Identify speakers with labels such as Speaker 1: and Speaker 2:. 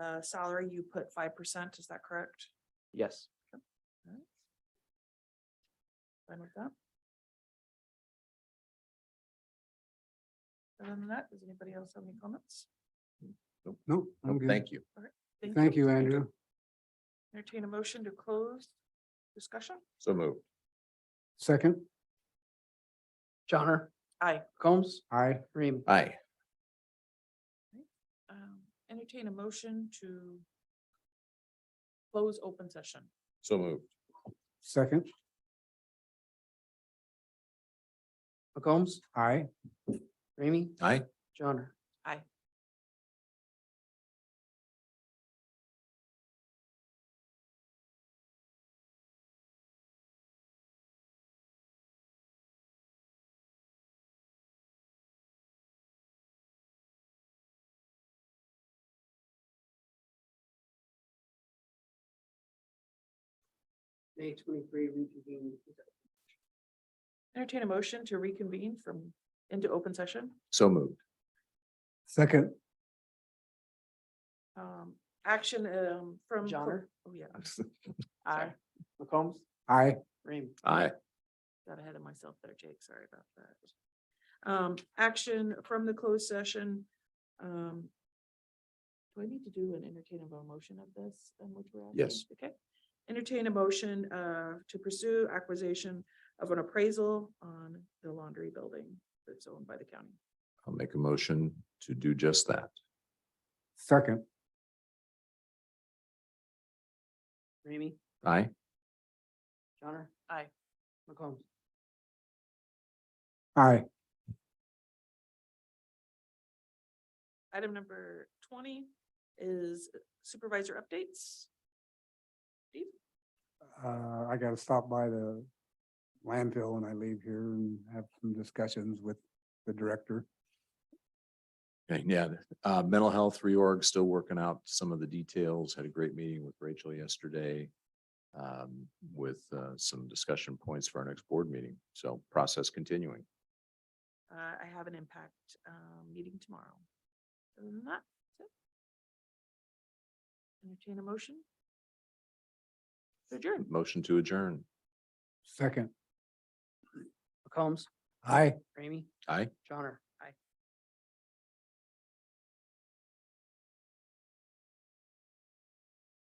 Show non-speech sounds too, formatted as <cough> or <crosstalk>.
Speaker 1: uh, salary, you put five percent, is that correct?
Speaker 2: Yes.
Speaker 1: Fine with that? Other than that, does anybody else have any comments?
Speaker 3: Nope, I'm good.
Speaker 4: Oh, Thank you.
Speaker 3: Thank you, Andrew.
Speaker 1: Entertain a motion to close discussion?
Speaker 4: So moved.
Speaker 3: Second,
Speaker 2: Johnner.
Speaker 1: Aye.
Speaker 2: Combs.
Speaker 3: aye.
Speaker 2: Ream.
Speaker 4: Aye.
Speaker 1: Um, entertain a motion to close open session.
Speaker 4: So moved.
Speaker 3: Second,
Speaker 2: McCombs.
Speaker 3: aye.
Speaker 2: Ramey.
Speaker 4: Aye.
Speaker 2: Johnner. May twenty-three reconvene.
Speaker 1: Entertain a motion to reconvene from into open session.
Speaker 4: So moved.
Speaker 3: Second,
Speaker 1: Um, action, um, from.
Speaker 2: Johnner?
Speaker 1: Oh, yeah. Aye.
Speaker 2: McCombs.
Speaker 3: aye.
Speaker 2: Ramey.
Speaker 4: <laughs> Aye.
Speaker 1: got ahead of myself there, Jake, sorry about that. Um, action from the closed session, um. Do I need to do an entertaining motion of this? um, which we're at?
Speaker 4: Yes.
Speaker 1: Okay, entertain a motion, uh, to pursue acquisition of an appraisal on the laundry building that's owned by the county.
Speaker 4: I'll make a motion to do just that.
Speaker 3: Second,
Speaker 2: Ramey.
Speaker 4: Aye.
Speaker 2: Johnner.
Speaker 1: Aye.
Speaker 2: McCombs.
Speaker 3: aye.
Speaker 1: Item number twenty is supervisor updates.
Speaker 3: Uh, I gotta stop by the landfill when I leave here and have some discussions with the director.
Speaker 4: Okay, Yeah, uh, mental health reorg, still working out some of the details. Had a great meeting with Rachel yesterday. Um, with, uh, some discussion points for our next board meeting. So process continuing.
Speaker 1: Uh, I have an impact, um, meeting tomorrow. Other than that, that's it. Entertain a motion? Adjourn.
Speaker 4: Motion to adjourn.
Speaker 3: Second,
Speaker 2: McCombs.
Speaker 3: aye.
Speaker 2: Ramey.
Speaker 4: Aye.
Speaker 2: Johnner.